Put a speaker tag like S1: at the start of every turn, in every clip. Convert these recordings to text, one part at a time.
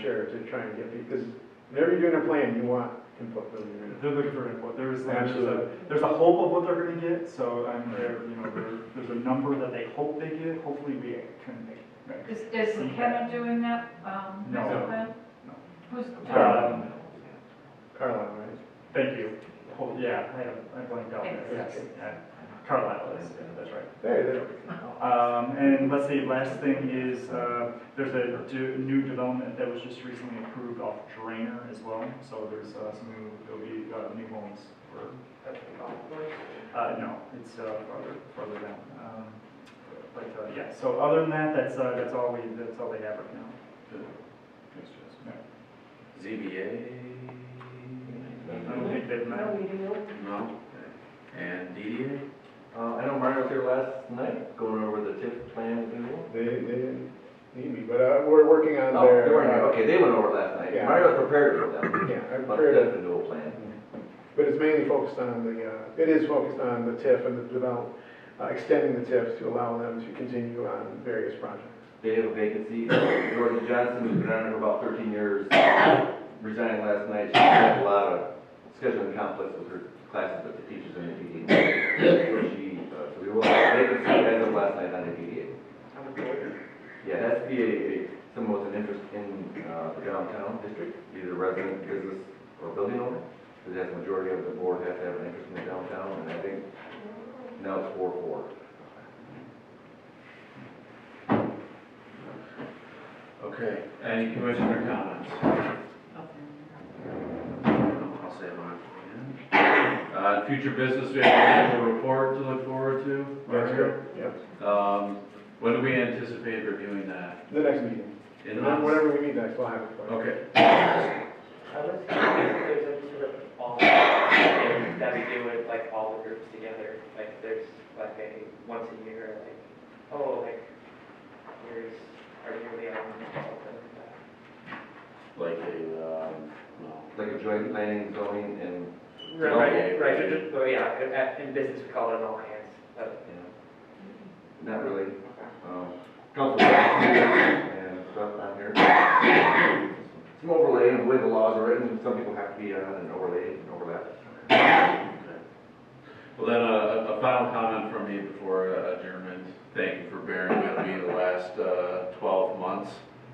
S1: sure, to try and get, because whenever you're doing a plan, you want input from your.
S2: They're looking for input, there's, there's a,
S1: Absolutely.
S2: there's a hope of what they're gonna get, so I'm there, you know, there, there's a number that they hope they get, hopefully we can make.
S3: Is, is Kevin doing that, um,
S2: No.
S3: master plan?
S2: No.
S3: Who's,
S2: Um,
S1: Carlisle, right?
S2: Thank you, Hope- yeah, I, I blanked out there, yes, yeah, Carlisle is, yeah, that's right.
S1: There, there.
S2: Um, and let's see, last thing is, uh, there's a de- new development that was just recently approved off Drainer as well, so there's, uh, some new, there'll be, uh, new homes for. Uh, no, it's, uh, farther, farther down, um, but, uh, yeah, so other than that, that's, uh, that's all we, that's all they have right now.
S4: ZBA?
S2: I don't think they've met.
S4: No. And DDA?
S5: Uh, I know Mario was here last night, going over the TIF plan with people.
S1: They, they didn't need me, but, uh, we're working on
S5: Oh, they
S1: their.
S5: weren't here, okay, they went over it last night.
S1: Yeah.
S5: Mario was prepared for them,
S1: Yeah, I've
S5: about
S1: heard
S5: the
S1: of,
S5: TIF renewal plan.
S1: but it's mainly focused on the, uh, it is focused on the TIF and the develop, uh, extending the TIF to allow them to continue on various projects.
S5: They have a vacancy, Dorothy Johnson, who's been on it for about thirteen years, resigned last night. She had a lot of scheduling conflicts with her classes with the teachers and the PD. So she, uh, so we will have a vacancy as of last night on the PDA. Yeah, it has to be a, a- someone with an interest in, uh, the downtown district, either resident, business, or building owner. Because that's the majority of the board has to have an interest in the downtown, and I think now it's four, four.
S4: Okay. Any commissioner comments? I'll say mine. Uh, future business, we have an annual report to look forward to.
S1: Yep,
S4: Um, when do we anticipate reviewing that?
S1: the next meeting.
S4: In
S1: And then
S4: August?
S1: whenever we meet next, we'll have it. for you.
S4: Okay.
S6: I was thinking if there's any sort of all, that we do with like all the groups together, like there's like a once a year, like, oh, like, here's our yearly on, something like that.
S4: Like a, um, no.
S5: Like a joint planning, zoning, and
S6: Right,
S4: Okay.
S6: right, right, it just- well, yeah, in- at- in business we call it an all hands, uh, but,
S5: Not really. Um, Council and stuff on here. Some overlay and the way the laws are written, some people have to be on and overlay and overlap.
S4: Okay. Well, then, uh, a a final comment from me before uh, adjournment. Thank you for bearing with me the last uh, 12 months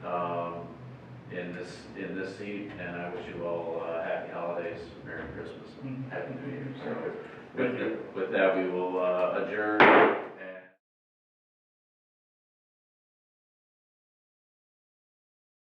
S4: um, in this, in this seat, and I wish you all uh, happy holidays,
S2: Mm-hmm.
S4: Merry Christmas, and Happy New Year. So with- with that, we will uh, adjourn